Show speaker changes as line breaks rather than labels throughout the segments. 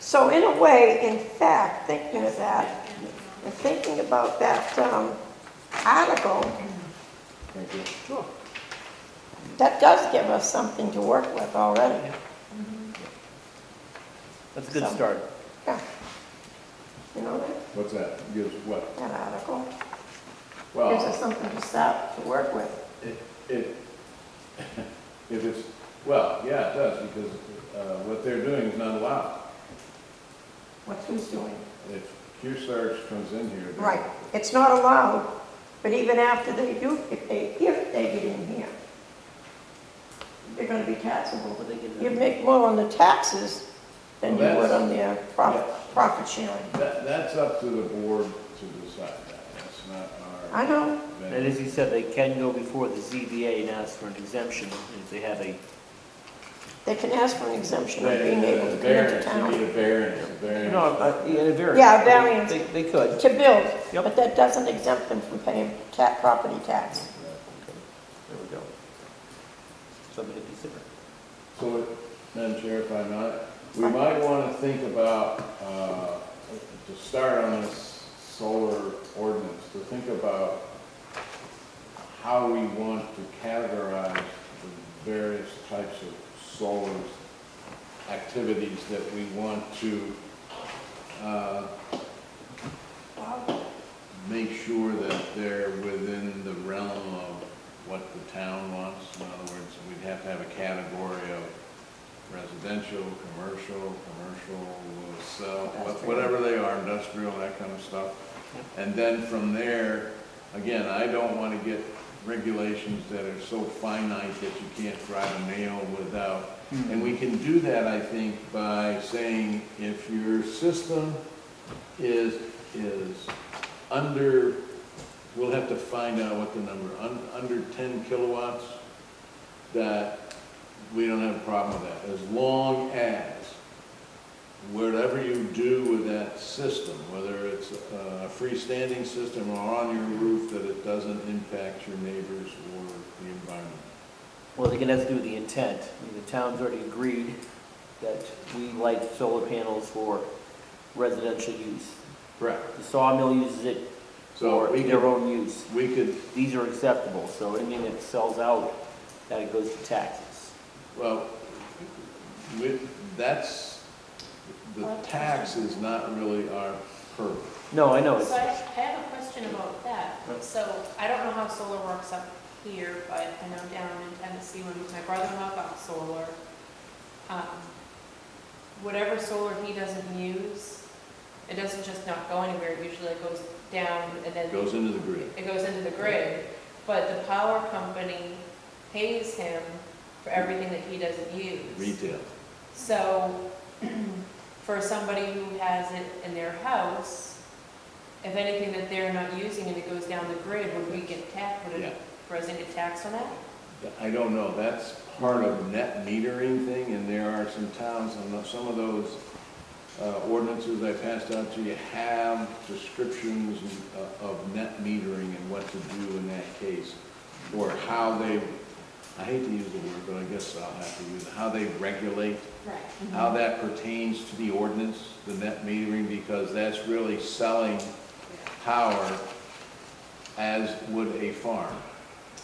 So in a way, in fact, thinking of that, and thinking about that um, article,
Thank you.
that does give us something to work with already.
That's a good
So-
start.
Yeah. You know that,
What's that? Gives what?
that article? Gives
Well,
us something to start to work with.
it, it, if it's, well, yeah, it does, because, uh, what they're doing is not allowed.
What who's doing.
If Q-Sarge comes in here. they-
Right, it's not allowed, but even after they do, if they, if they get in here, they're gonna be taxable.
What they can do.
You make more on the taxes than you
Well,
would
that's-
on their profit, profit sharing.
That, that's up to the board to decide that. That's not our.
I know,
venue.
And as you said, they can go before the ZBA and ask for an exemption if they have a,
they can ask for an exemption of
They-
being able to
the
come into
variance, You
town
need a variance, a variance.
no, a, yeah, a variance.
Yeah, a variance.
They, they could.
to build,
Yep.
but that doesn't exempt them from paying ta, property tax.
There we go. Something to consider.
So, Madam Chair, if I might, we might want to think about, uh, to start on this solar ordinance, to think about how we want to categorize the various types of solar activities that we want to uh, make sure that they're within the realm of what the town wants. In other words, we'd have to have a category of residential, commercial, commercial, uh, cell, what-
Industrial.
whatever they are, industrial, that kind of stuff. And then from there, again, I don't want to get regulations that are so finite that you can't drive a nail without. And we can do that, I think, by saying if your system is, is under, we'll have to find out what the number, un, under ten kilowatts, that we don't have a problem with that, as long as whatever you do with that system, whether it's a freestanding system or on your roof, that it doesn't impact your neighbors or the environment.
Well, they can have to do with the intent. I mean, the town's already agreed that we light solar panels for residential use.
Correct.
The sawmill uses it
So
for
we
their
could,
own use.
we could,
These are acceptable, so anything that sells out, that it goes to taxes.
well, we, that's, the tax is not really our purview.
No, I know, it's,
So I I have a question about that. So I don't know how solar works up here, but I know down in Tennessee when my brother-in-law got solar, um, whatever solar he doesn't use, it doesn't just not go anywhere. It Usually it goes down and then
It goes into the grid.
it goes into the grid. But the power company pays him for everything that he doesn't use.
Retail.
So, for somebody who has it in their house, if anything that they're not using and it goes down the grid, would we get taxed, would
Yeah.
a resident get taxed on that?
I don't know, that's part of net metering thing, and there are some towns, and some of those uh, ordinances I passed out to you have descriptions of- of net metering and what to do in that case, or how they, I hate to use the word, but I guess I'll have to use it, how they regulate
Right.
how that pertains to the ordinance, the net metering, because that's really selling power as would a farm.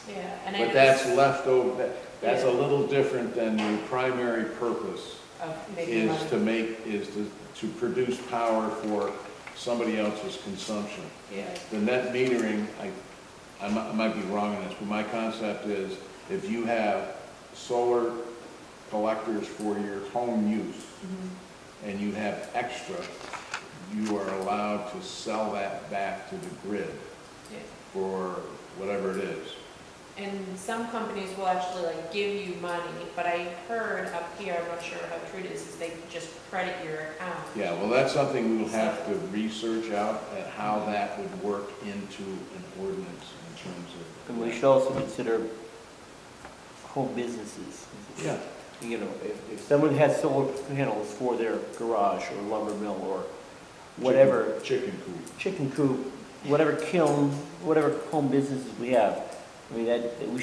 Yeah, and I.
But
know
that's
this-
left over, that- that's a little different than the primary purpose
Of making
is to
oh, money.
make, is to, to produce power for somebody else's consumption.
Yeah,
The net metering, I, I mi- I might be wrong on this, but my concept is if you have solar collectors for your home use and you have extra, you are allowed to sell that back to the grid
yeah.
for whatever it is.
And some companies will actually like give you money, but I heard up here, I'm not sure how true it is, is they just credit your account.
Yeah, well, that's something we'll have to research out at how that would work into an ordinance in terms of.
and we should also consider home businesses.
Yeah,
You know, if, if someone has solar panels for their garage or lumber mill or whatever,
chicken coop.
chicken coop, whatever kiln, whatever home businesses we have, I mean, that, that we